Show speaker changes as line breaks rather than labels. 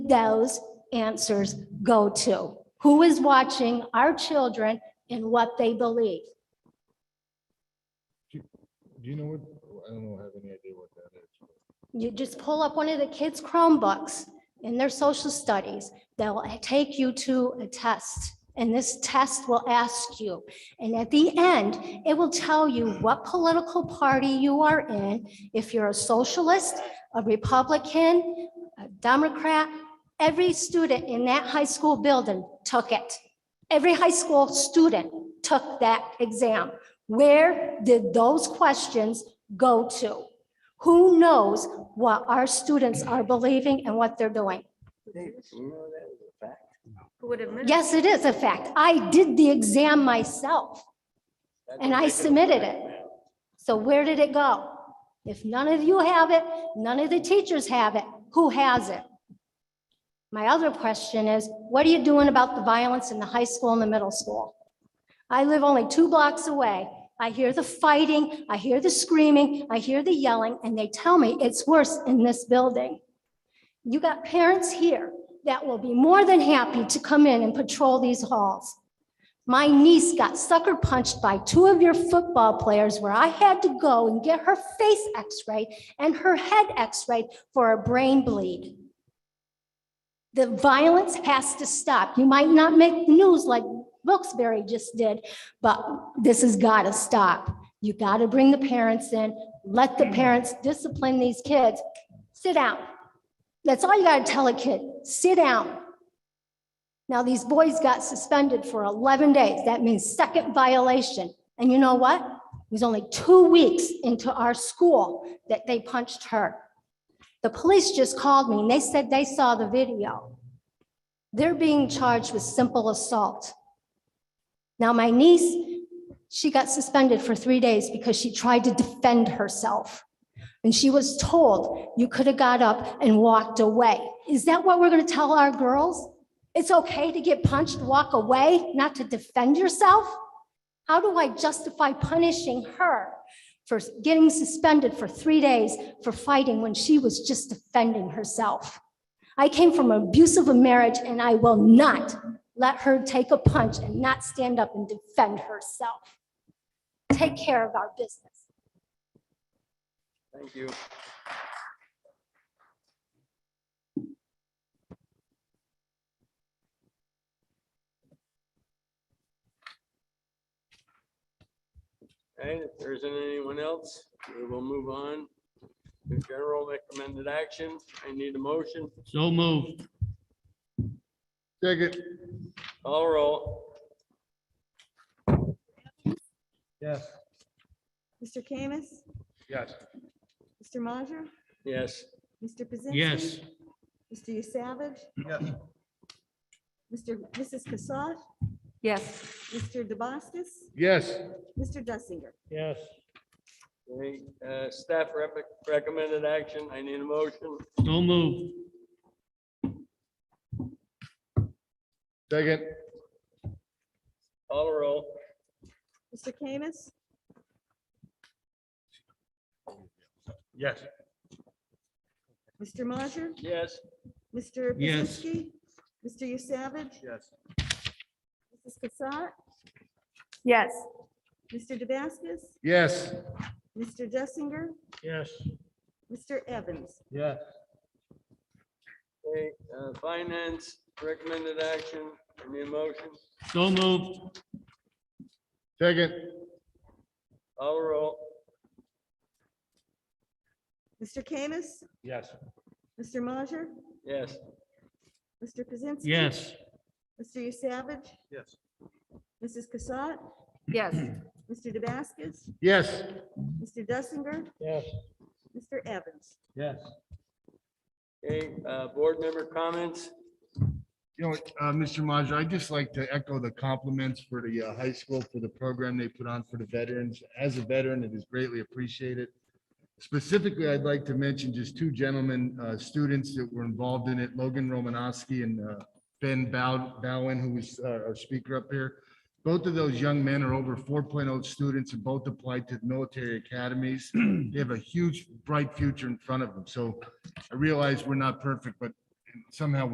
those answers go to? Who is watching our children and what they believe?
Do you know what, I don't know, have any idea what that is.
You just pull up one of the kids' Chromebooks in their social studies. They'll take you to a test. And this test will ask you, and at the end, it will tell you what political party you are in, if you're a socialist, a Republican, a Democrat. Every student in that high school building took it. Every high school student took that exam. Where did those questions go to? Who knows what our students are believing and what they're doing?
Who would admit? it?
Yes, it is a fact. I did the exam myself and I submitted it. So where did it go? If none of you have it, none of the teachers have it, who has it? My other question is, what are you doing about the violence in the high school and the middle school? I live only two blocks away. I hear the fighting, I hear the screaming, I hear the yelling, and they tell me it's worse in this building. You got parents here that will be more than happy to come in and patrol these halls. My niece got sucker punched by two of your football players where I had to go and get her face x-rayed and her head x-rayed for a brain bleed. The violence has to stop. You might not make the news like Wilkes-Barre just did, but this has got to stop. You got to bring the parents in, let the parents discipline these kids. Sit down. That's all you got to tell a kid. Sit down. Now, these boys got suspended for 11 days. That means second violation. And you know what? It was only two weeks into our school that they punched her. The police just called me and they said they saw the video. They're being charged with simple assault. Now, my niece, she got suspended for three days because she tried to defend herself. And she was told, you could have got up and walked away. Is that what we're going to tell our girls? It's okay to get punched, walk away, not to defend yourself? How do I justify punishing her for getting suspended for three days for fighting when she was just defending herself? I came from an abusive marriage and I will not let her take a punch and not stand up and defend herself. Take care of our business.
Thank you. Okay, if there isn't anyone else, we will move on. The general recommended action, I need a motion,
So moved.
Second.
call roll.
Yes.
Mr. Kamis,
Yes.
Mr. Majer,
Yes,
Mr. Pazinski.
Yes,
Mr. Savage,
Yes.
Mr. Mrs. Cassatt,
Yes,
Mr. DeBoskis,
Yes.
Mr. Dussinger.
Yes.
Okay, uh, staff rep- recommended action, I need a motion,
so moved.
Second.
call roll.
Mr. Kamis,
Yes.
Mr. Majer,
Yes,
Mr.
Yes.
Pazinski, Mr. Savage,
Yes.
Mrs. Cassatt,
yes,
Mr. DeBoskis,
Yes.
Mr. Dussinger,
Yes.
Mr. Evans.
Yes.
okay, uh, finance recommended action, I need a motion,
So moved.
Second.
call roll.
Mr. Kamis,
Yes.
Mr. Majer,
Yes,
Mr. Pazinski.
Yes,
Mr. Savage,
Yes.
Mrs. Cassatt,
yes,
Mr. DeBaskis,
Yes.
Mr. Dussinger,
Yes.
Mr. Evans.
Yes.
okay, uh, board member comments,
You know, uh, Mr. Majer, I'd just like to echo the compliments for the uh, high school for the program they put on for the veterans. As a veteran, it is greatly appreciated. Specifically, I'd like to mention just two gentlemen, uh, students that were involved in it, Logan Romanowski and uh, Ben Bow- Bowen, who was uh, our speaker up here. Both of those young men are over 4.0 students and both applied to military academies. They have a huge, bright future in front of them. So I realize we're not perfect, but somehow